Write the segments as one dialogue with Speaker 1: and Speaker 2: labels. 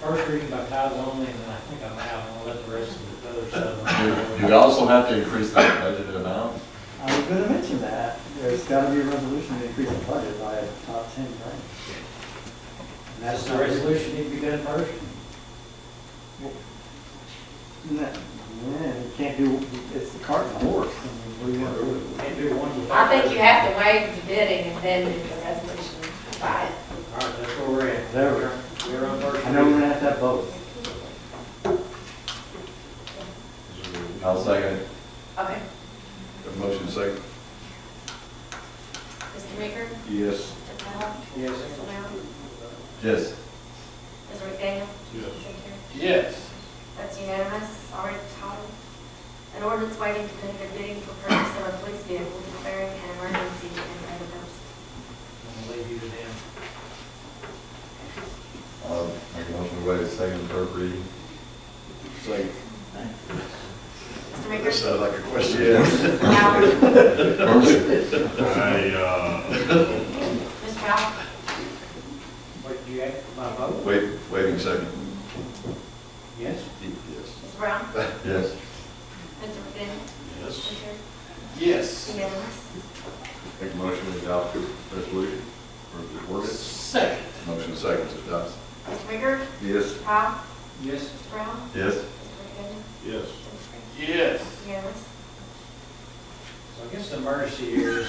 Speaker 1: first reading by title only, and then I think I'm out, and I'll let the rest of the other
Speaker 2: You
Speaker 1: stuff.
Speaker 2: you also have to increase the budgeted amount.
Speaker 3: I was gonna mention that, there's gotta be a resolution to increase the budget by top ten grand. And
Speaker 1: That's
Speaker 3: that's
Speaker 1: the
Speaker 3: not
Speaker 1: resolution need to be done first?
Speaker 3: No, Man, you can't do, it's the cart and the horse, I mean, what do you want to do?
Speaker 1: Can't do one without.
Speaker 4: I think you have to waive the bidding and then do the resolution by it.
Speaker 1: All right, that's where we're at.
Speaker 3: There we
Speaker 1: We're-
Speaker 3: go.
Speaker 1: We're on first
Speaker 3: I know we're
Speaker 1: reading.
Speaker 3: gonna have to have both.
Speaker 2: I'll second.
Speaker 4: Okay,
Speaker 5: Have a motion second?
Speaker 4: Mr. Maker,
Speaker 5: Yes.
Speaker 4: Mr. Powell,
Speaker 1: Yes.
Speaker 4: Mr. Brown,
Speaker 2: Yes.
Speaker 4: Mr. McDaniel.
Speaker 5: Yes.
Speaker 6: Yes.
Speaker 4: That's unanimous, already titled. An ordinance waiting competitive bidding for purchase of a police vehicle declaring an emergency and other purposes.
Speaker 1: I'm gonna leave you to them.
Speaker 2: I'll make a motion to waive second and third reading.
Speaker 5: Second.
Speaker 4: Mr.
Speaker 5: That
Speaker 4: Maker,
Speaker 5: sounded like a question.
Speaker 2: Yes.
Speaker 4: Powell, Mr.
Speaker 7: I, uh,
Speaker 4: Powell,
Speaker 1: What, do you act by vote?
Speaker 5: Wait, waiting second.
Speaker 1: Yes?
Speaker 5: Yes.
Speaker 4: Mr. Brown,
Speaker 2: Yes.
Speaker 4: Mr. McDaniel,
Speaker 7: yes,
Speaker 4: Mr.
Speaker 6: Yes.
Speaker 4: Unanimous.
Speaker 5: Make a motion to adopt the resolution or the ordinance.
Speaker 6: Second.
Speaker 5: Motion second to adopt.
Speaker 4: Mr. Maker,
Speaker 5: Yes.
Speaker 4: Powell,
Speaker 1: Yes.
Speaker 4: Mr. Brown,
Speaker 2: Yes.
Speaker 4: Mr. McDaniel,
Speaker 7: yes.
Speaker 4: Mr.
Speaker 6: Yes.
Speaker 4: Unanimous.
Speaker 1: So I guess the mercy here is,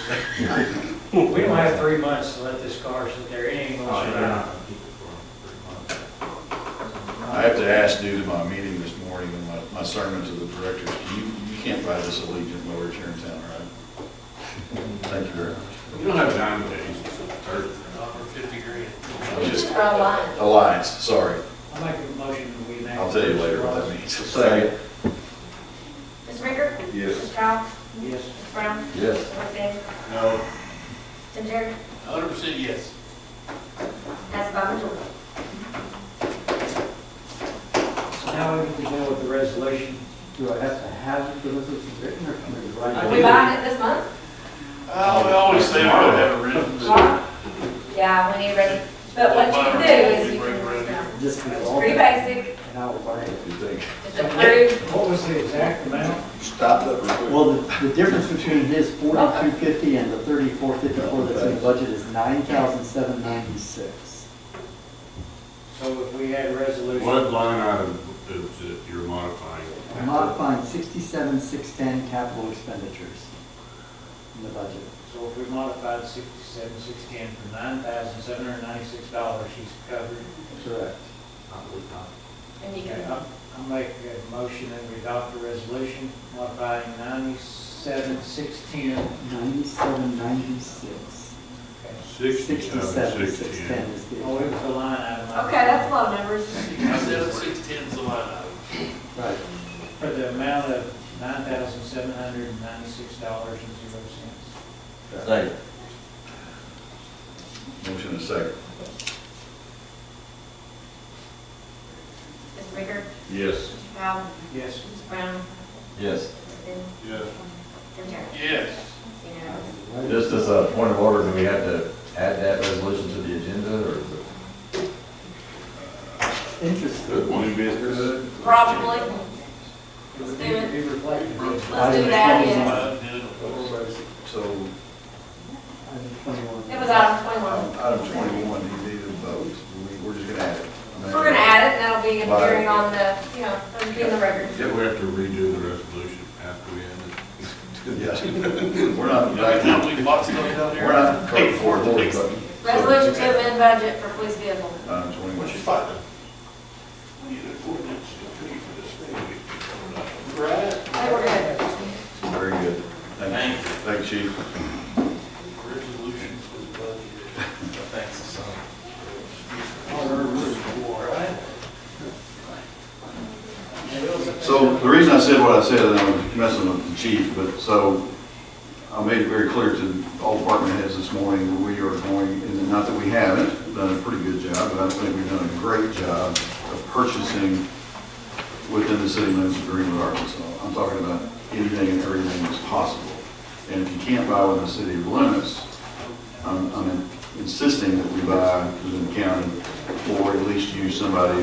Speaker 1: we don't have three months to let this car sit there
Speaker 5: Oh,
Speaker 1: anymore.
Speaker 5: I have to ask due to my meeting this morning and my, my sermon to the directors, you, you can't buy this Allegiant mower here in town, right? Thank you very much.
Speaker 7: You don't have nine days, it's the third.
Speaker 6: Over fifty grand.
Speaker 5: I'm just,
Speaker 4: Mr. Allen,
Speaker 5: Alliance, sorry.
Speaker 1: I'll make a motion that we enact.
Speaker 5: I'll tell you later what that means.
Speaker 2: Second.
Speaker 4: Mr. Maker.
Speaker 5: Yes.
Speaker 4: Mr. Powell,
Speaker 1: Yes.
Speaker 4: Mr. Brown,
Speaker 2: Yes.
Speaker 4: Mr. McDaniel,
Speaker 6: No.
Speaker 4: Tim Terry,
Speaker 6: Hundred percent yes.
Speaker 4: that's by majority.
Speaker 1: So now we can deal with the resolution.
Speaker 3: Do I have to have the resolution written or can we write
Speaker 4: We
Speaker 3: it?
Speaker 4: buying it this month?
Speaker 6: Oh, we always say we don't have it written.
Speaker 4: Yeah, we need ready, but what you can do is you can,
Speaker 3: Just be
Speaker 4: it's
Speaker 3: all,
Speaker 4: pretty
Speaker 3: and
Speaker 4: basic,
Speaker 3: I will buy it.
Speaker 5: You think?
Speaker 4: just approve,
Speaker 1: What was the exact amount?
Speaker 5: Stop that real quick.
Speaker 3: Well, the, the difference between his forty-two fifty and the thirty-four fifty-four that's in the budget is nine thousand seven ninety-six.
Speaker 1: So if we had a resolution.
Speaker 7: What line item is it you're modifying?
Speaker 3: Modifying sixty-seven six ten capital expenditures in the budget.
Speaker 1: So if we modified sixty-seven, six ten for nine thousand, seven hundred ninety-six dollars, she's covered.
Speaker 3: Correct.
Speaker 4: and you
Speaker 1: Okay,
Speaker 4: can,
Speaker 1: I'll, I'll make a motion that we adopt the resolution modifying ninety-seven, six ten.
Speaker 3: Ninety-seven ninety-six.
Speaker 7: Sixty-seven,
Speaker 3: Sixty-seven six ten
Speaker 7: sixteen.
Speaker 3: is
Speaker 1: Oh,
Speaker 3: the,
Speaker 1: it was the line item.
Speaker 4: okay, that's low numbers.
Speaker 6: Seven, six, ten's the line item.
Speaker 3: right,
Speaker 1: For the amount of nine thousand, seven hundred ninety-six dollars and zero cents.
Speaker 2: Second.
Speaker 5: Motion is second.
Speaker 4: Mr. Baker,
Speaker 5: Yes.
Speaker 4: Mr. Powell,
Speaker 1: Yes.
Speaker 4: Mr. Brown,
Speaker 2: Yes.
Speaker 4: Mr.
Speaker 7: Yes.
Speaker 4: Terry,
Speaker 6: Yes.
Speaker 4: unanimous.
Speaker 2: Just as a point of order, do we have to add that resolution to the agenda or? is it-
Speaker 3: interesting.
Speaker 5: New business?
Speaker 4: Probably,
Speaker 1: It would need to be reflected.
Speaker 4: let's do that, yes.
Speaker 5: So,
Speaker 3: Item 21.
Speaker 4: It was item twenty-one.
Speaker 5: item twenty-one, you need a vote. We- We're just gonna add it.
Speaker 4: We're gonna add it, and that'll be appearing on the, you know, it'll be in the record.
Speaker 7: Yeah, we have to redo the resolution after we end it.
Speaker 5: Yeah. We're not,
Speaker 6: Every time we bought stuff down here.
Speaker 5: we're not.
Speaker 6: Pay for it,
Speaker 5: We're
Speaker 6: please.
Speaker 5: voting.
Speaker 4: Resolution to amend budget for police vehicle.
Speaker 5: Item
Speaker 6: What's
Speaker 5: um, twenty-one.
Speaker 6: your thought? We need an ordinance to pay for this thing we- Right.
Speaker 4: I think we're good.
Speaker 5: Very good. Thank you. Thank you, chief.
Speaker 6: Resolution for the budget. Thanks, son.
Speaker 5: So the reason I said what I said, and I was messing with the chief, but so I made it very clear to all department heads this morning that we are going, and not that we haven't done a pretty good job, but I think we've done a great job of purchasing within the city limits of Greenwood, Arkansas. I'm talking about anything and everything that's possible. And if you can't buy within the city limits, I'm, I'm insisting that we buy within the county or at least use somebody